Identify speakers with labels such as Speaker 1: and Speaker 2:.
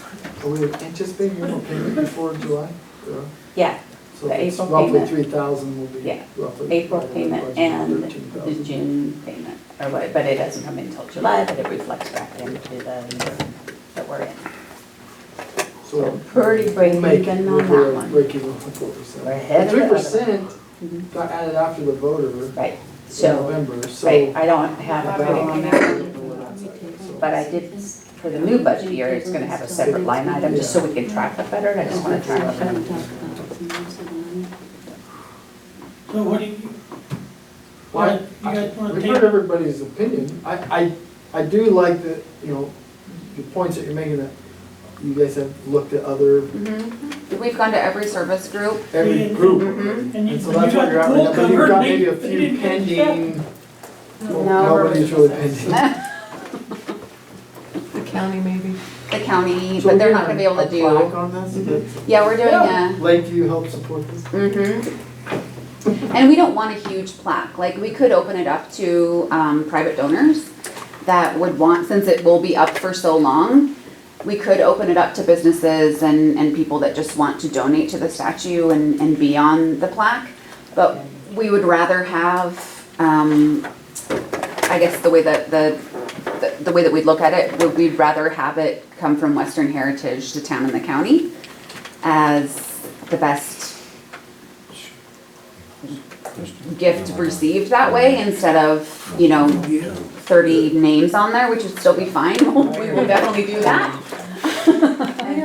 Speaker 1: Are we anticipating April payment before July? Yeah.
Speaker 2: Yeah,
Speaker 1: So
Speaker 2: The
Speaker 1: it's
Speaker 2: April
Speaker 1: roughly
Speaker 2: payment.
Speaker 1: three thousand will be
Speaker 2: Yeah.
Speaker 1: roughly.
Speaker 2: April payment and the
Speaker 1: 13,000.
Speaker 2: June payment, or what, but it doesn't come until July, but it reflects back into the year that we're in.
Speaker 1: So.
Speaker 2: Pretty break
Speaker 1: we'll make-
Speaker 2: even on
Speaker 1: we'll
Speaker 2: that
Speaker 1: break-
Speaker 2: one.
Speaker 1: Break even on four percent.
Speaker 2: We're ahead of the
Speaker 1: Three
Speaker 2: other one.
Speaker 1: percent
Speaker 2: Mhm.
Speaker 1: got added after the voter in
Speaker 2: Right, so,
Speaker 1: November, so.
Speaker 2: right, I don't have a vote on that, but
Speaker 1: But
Speaker 2: I did, for the new budget year, it's gonna have a separate line item, just so we can track it better, and I just wanna track it.
Speaker 3: So what do you,
Speaker 1: Well,
Speaker 3: what, you
Speaker 1: I-
Speaker 3: guys wanna
Speaker 1: We've
Speaker 3: take?
Speaker 1: heard everybody's opinion. I, I, I do like the, you know, the points that you're making that you guys have looked at other,
Speaker 4: Mhm. We've gone to every service group.
Speaker 1: every
Speaker 3: Mhm.
Speaker 1: group.
Speaker 4: Mhm.
Speaker 3: And you,
Speaker 1: And so
Speaker 3: you got
Speaker 1: that's what
Speaker 3: the
Speaker 1: you're at
Speaker 3: pool
Speaker 1: right now. You've
Speaker 3: covered,
Speaker 1: got
Speaker 3: they-
Speaker 1: maybe a
Speaker 3: they
Speaker 1: few
Speaker 3: didn't get shit.
Speaker 1: pending. Well,
Speaker 2: No,
Speaker 1: Nobody's really pending.
Speaker 4: The county maybe. The county, but
Speaker 1: So
Speaker 4: they're
Speaker 1: we're
Speaker 4: not gonna be able to
Speaker 1: A plaque
Speaker 4: do. Mm-hmm.
Speaker 1: on that, so that
Speaker 4: Yeah, we're doing a,
Speaker 1: Lakeview helps support this.
Speaker 4: hmm Mm-hmm. And we don't want a huge plaque, like, we could open it up to, um, private donors that would want, since it will be up for so long, we could open it up to businesses and, and people that just want to donate to the statue and, and be on the plaque. But we would rather have, um, I guess the way that, the, the- the way that we'd look at it, would we'd rather have it come from Western Heritage to town and the county as the best gift received that way instead of, you know, thirty names on there, which would still be fine, we will definitely do that.